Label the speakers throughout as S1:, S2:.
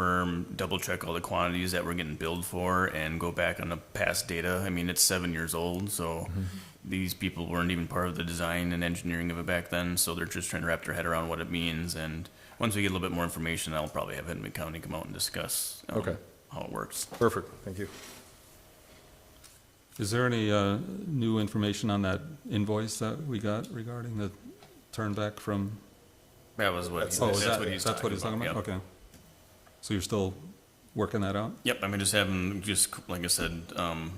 S1: firm, double check all the quantities that we're getting billed for and go back on the past data. I mean, it's seven years old, so these people weren't even part of the design and engineering of it back then, so they're just trying to wrap their head around what it means. And once we get a little bit more information, I'll probably have Hennepin County come out and discuss um,
S2: Okay.
S1: how it works.
S2: Perfect, thank you.
S3: Is there any uh, new information on that invoice that we got regarding the turnback from?
S1: That was what, he-
S3: Oh, is
S1: that's
S3: that-
S1: what he's
S3: That's
S1: talking
S3: what he's talking
S1: about,
S3: about?
S1: yep.
S3: Okay. So you're still working that out?
S1: Yep, I mean, just having, just like I said, um,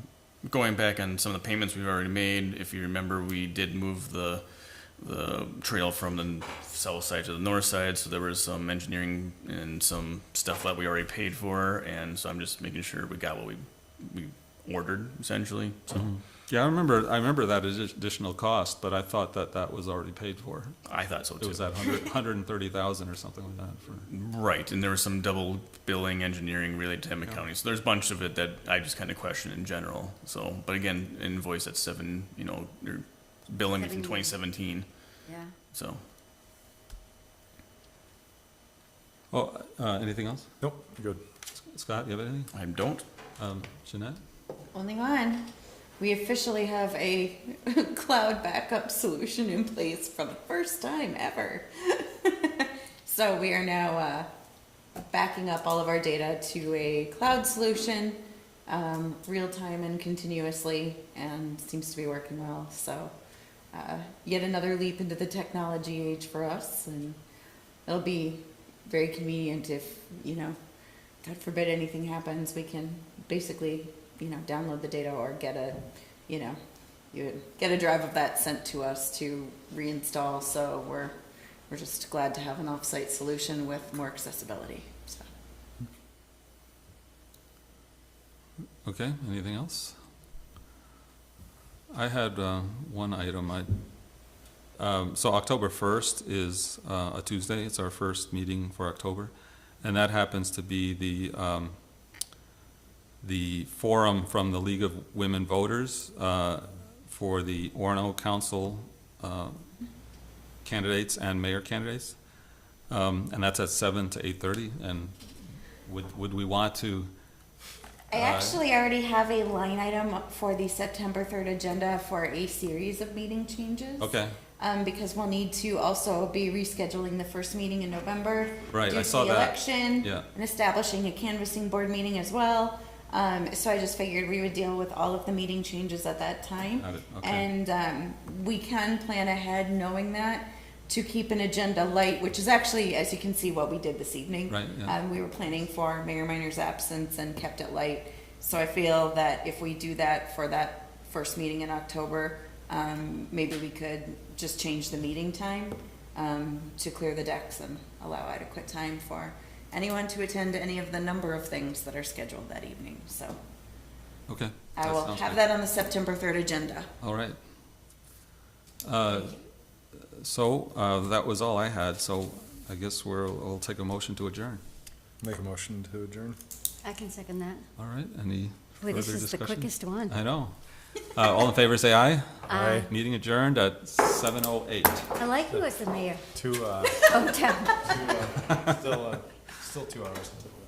S1: going back on some of the payments we've already made, if you remember, we did move the, the trail from the south side to the north side, so there was some engineering and some stuff that we already paid for, and so I'm just making sure we got what we, we ordered essentially, so
S3: Mm-hmm. Yeah, I remember, I remember that addi- additional cost, but I thought that that was already paid for.
S1: I thought so
S3: It
S1: too.
S3: was that hundred, hundred and thirty thousand or something like that for,
S1: Right, and there was some double billing engineering related to Emmett County, so there's a bunch of it that I just kind of question in general, so, but again, invoice at seven, you know, your billing
S4: Seven
S1: from
S4: years.
S1: twenty seventeen,
S4: Yeah.
S1: so.
S3: oh, uh, anything else?
S2: Nope, good.
S3: Scott, you have anything?
S1: I don't.
S3: Um, Jeanette?
S4: Only one. We officially have a cloud backup solution in place for the first time ever. so we are now uh, backing up all of our data to a cloud solution, um, real time and continuously, and seems to be working well. So, uh, yet another leap into the technology age for us, and it'll be very convenient if, you know, God forbid anything happens, we can basically, you know, download the data or get a, you know, you get a drive of that sent to us to reinstall. So we're we're just glad to have an offsite solution with more accessibility. So.
S3: Okay, anything else? I had uh, one item, I, um, so October 1st is uh, a Tuesday, it's our first meeting for October, and that happens to be the, um, the forum from the League of Women Voters uh, for the Orono Council uh, candidates and mayor candidates, Um, and that's at 7 to 8:30, and would, would we want to?
S4: I
S3: Uh,
S4: actually already have a line item for the September third agenda for a series of meeting changes.
S3: Okay,
S4: Um, because we'll need to also be rescheduling the first meeting in November.
S3: Right,
S4: due
S3: I
S4: to
S3: saw
S4: the
S3: that.
S4: Election.
S3: Yeah.
S4: And establishing a canvassing board meeting as well. Um, so I just figured we would deal with all of the meeting changes at that time.
S3: Got it, okay.
S4: And, um, we can plan ahead knowing that to keep an agenda light, which is actually, as you can see, what we did this evening.
S3: Right, yeah.
S4: Um, we were planning for Mayor Minor's absence and kept it light. So I feel that if we do that for that first meeting in October, um, maybe we could just change the meeting time, um, to clear the decks and allow adequate time for anyone to attend any of the number of things that are scheduled that evening, so.
S3: okay.
S4: I will
S3: sounds
S4: have
S3: good.
S4: that on the September third agenda.
S3: All right. Uh, So uh, that was all I had, so I guess we'll, we'll take a motion to adjourn.
S2: Make a motion to adjourn.
S5: I can second that.
S3: All right, any
S5: Boy,
S3: further
S5: this
S3: discussion?
S5: is the quickest one.
S3: I know. Uh, All in favor, say aye.
S2: Aye.
S3: Meeting adjourned at 7:08.
S5: I like you as the mayor
S2: Two, uh,
S5: of town.
S2: still, uh, still two hours until.